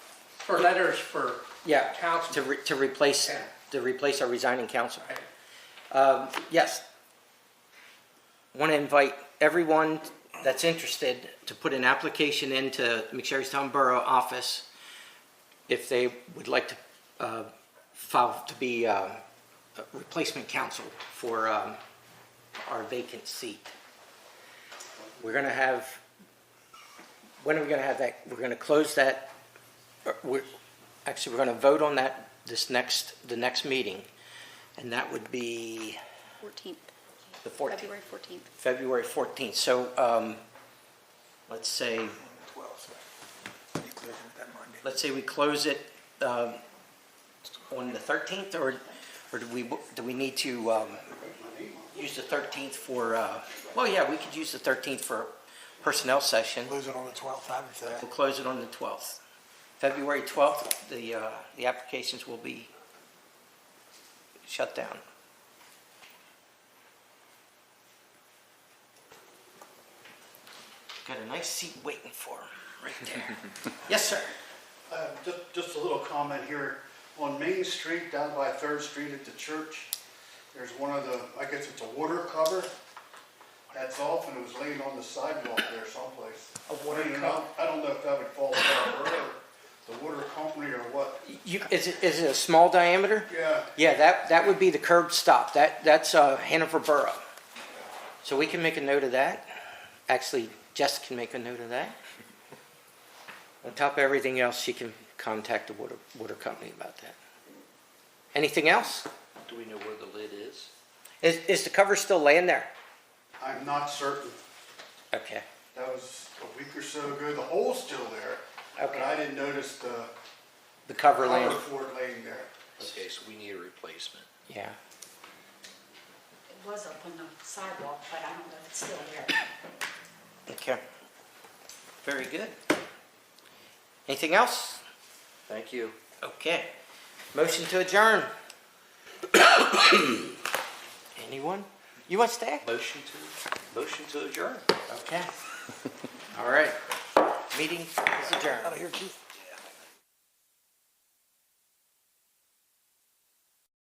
for letters for Yeah, to, council. re- to replace, Yeah. to replace our resigning council. Right. Um, yes. Want to invite everyone that's interested to put an application into McSherrystown Borough Office if they would like to uh, file to be uh, a replacement council for um, our vacant seat. We're going to have, when are we going to have that? We're going to close that, uh, we're, actually, we're going to vote on that this next, the next meeting. And that would be 14th, the 14th, February 14th. February 14th. So um, let's say, let's say we close it um, on the 13th, or, or do we, do we need to um, use the 13th for, uh, well, yeah, we could use the 13th for personnel session. Lose it on the 12th, I would say. We'll close it on the 12th. February 12th, the, uh, the applications will be shut down. Got a nice seat waiting for him, right there. Yes, sir. Uh, Just, just a little comment here. On Main Street, down by Third Street at the church, there's one of the, I guess it's a water cover that's off and it was laying on the sidewalk there someplace. A water I mean, I- cover? I don't know if that would fall on the water company or what. You, is it, is it a small diameter? Yeah, Yeah, that, that would be the curb stop. That, that's uh, Hanover Borough. So we can make a note of that. Actually, Jess can make a note of that. On top of everything else, she can contact the water, water company about that. Anything else? Do we know where the lid is? Is, is the cover still laying there? I'm not certain. Okay. That was a week or so ago. The hole's still there. Okay. But I didn't notice the The cover cover laying, for it laying there. Okay, so we need a replacement. yeah. It was up on the sidewalk, but I don't know if it's still there. Okay. Very good. Anything else? Thank you. Okay. Motion to adjourn. Anyone? You want to stay? Motion to, motion to adjourn. Okay. All right. Meeting is adjourned. Out of here, Keith.